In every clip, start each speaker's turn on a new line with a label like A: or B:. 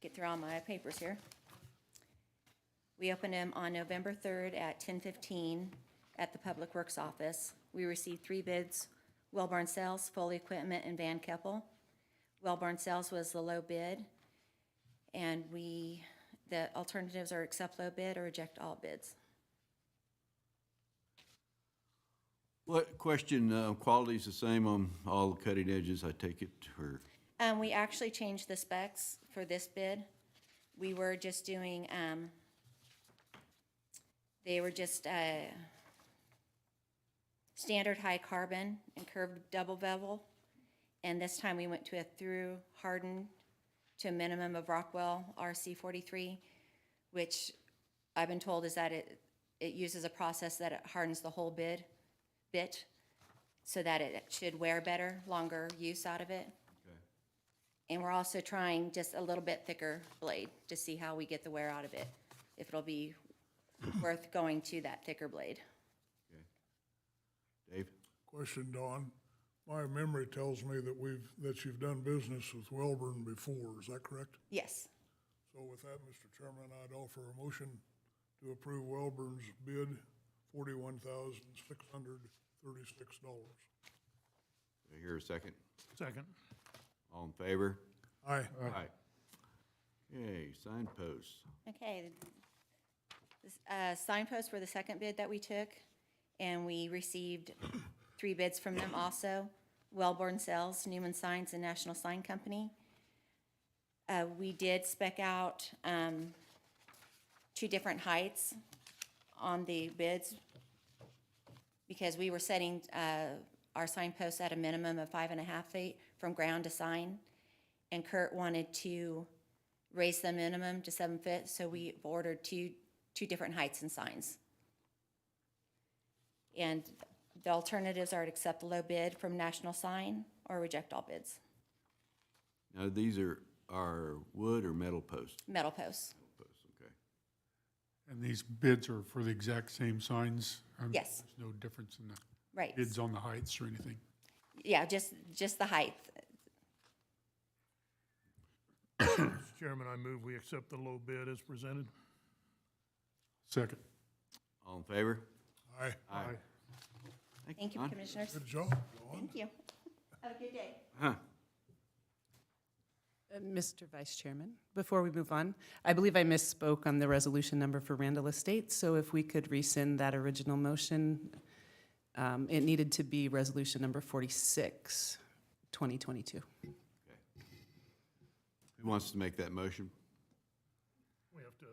A: get through all my papers here. We opened them on November 3rd at 10:15 at the Public Works Office. We received three bids, Wellborn Sales, Foley Equipment, and Van Keppel. Wellborn Sales was the low bid, and we, the alternatives are accept low bid or reject all bids.
B: What question, uh, quality's the same on all the cutting edges, I take it, or,
A: Um, we actually changed the specs for this bid. We were just doing, um, they were just, uh, standard high carbon and curved double bevel. And this time we went to a through hardened to a minimum of Rockwell RC forty-three, which I've been told is that it, it uses a process that it hardens the whole bid, bit, so that it should wear better, longer use out of it. And we're also trying just a little bit thicker blade to see how we get the wear out of it, if it'll be worth going to that thicker blade.
B: Dave?
C: Question, Don. My memory tells me that we've, that you've done business with Welborn before, is that correct?
A: Yes.
C: So with that, Mr. Chairman, I'd offer a motion to approve Welborn's bid, forty-one thousand, six hundred thirty-six dollars.
B: Do I hear a second?
D: Second.
B: All in favor?
C: Aye.
B: Aye. Yay, signposts.
A: Okay. This, uh, Signposts were the second bid that we took, and we received three bids from them also. Wellborn Sales, Newman Signs, and National Sign Company. Uh, We did spec out um, two different heights on the bids because we were setting uh, our signposts at a minimum of five and a half feet from ground to sign. And Kurt wanted to raise the minimum to seven feet, so we've ordered two, two different heights and signs. And the alternatives are to accept the low bid from National Sign or reject all bids.
B: Now, these are, are wood or metal posts?
A: Metal posts,
B: Posts, okay.
D: And these bids are for the exact same signs? Um,
A: Yes.
D: There's no difference in the
A: right.
D: bids on the heights or anything?
A: Yeah, just, just the height.
E: Mr. Chairman, I move we accept the low bid as presented.
D: Second.
B: All in favor?
C: Aye.
B: Aye.
A: Thank you,
B: Don.
A: Commissioners.
C: Good job, Don.
A: Thank you. Have a good day.
B: Huh.
F: Uh, Mr. Vice Chairman, before we move on, I believe I misspoke on the resolution number for Randall Estates, so if we could rescind that original motion, um, it needed to be resolution number 46, 2022.
B: Who wants to make that motion?
E: We have to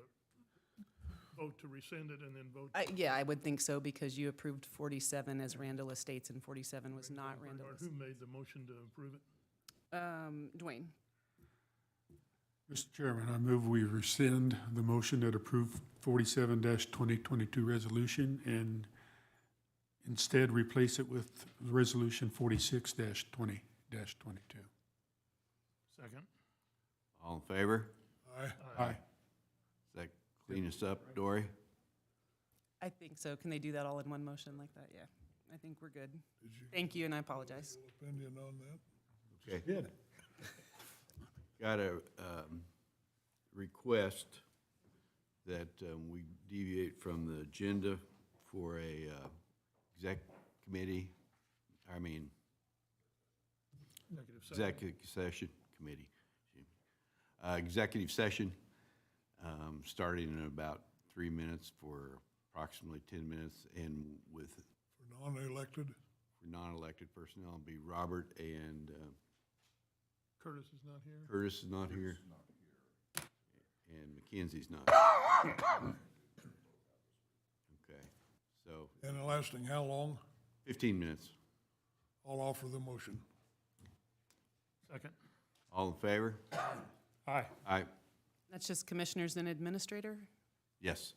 E: vote to rescind it and then vote.
F: I- Yeah, I would think so, because you approved 47 as Randall Estates, and 47 was not Randall
E: Bernard, Who
F: Estates.
E: made the motion to approve it?
F: Um, Dwayne,
D: Mr. Chairman, I move we rescind the motion that approved forty-seven twenty twenty-two resolution and instead replace it with resolution forty-six twenty twenty-two.
E: Second.
B: All in favor?
C: Aye.
D: Aye.
B: Does that clean us up, Dory?
F: I think so. Can they do that all in one motion like that? Yeah, I think we're good. Thank you, and I apologize.
C: Opinion on that?
B: Okay. Got a um, request that um, we deviate from the agenda for a uh, exec committee, I mean,
E: Executive session.
B: executive session committee. excuse me. Uh, Executive session, um, starting in about three minutes for approximately 10 minutes, and with
C: For non-elected?
B: non-elected personnel, be Robert and uh,
E: Curtis is not here.
B: Curtis is not here. And Mackenzie's not. Okay, so
C: And lasting how long?
B: fifteen minutes.
C: I'll offer the motion.
E: Second.
B: All in favor?
D: Aye.
B: Aye,
F: That's just commissioners and administrator?
B: yes.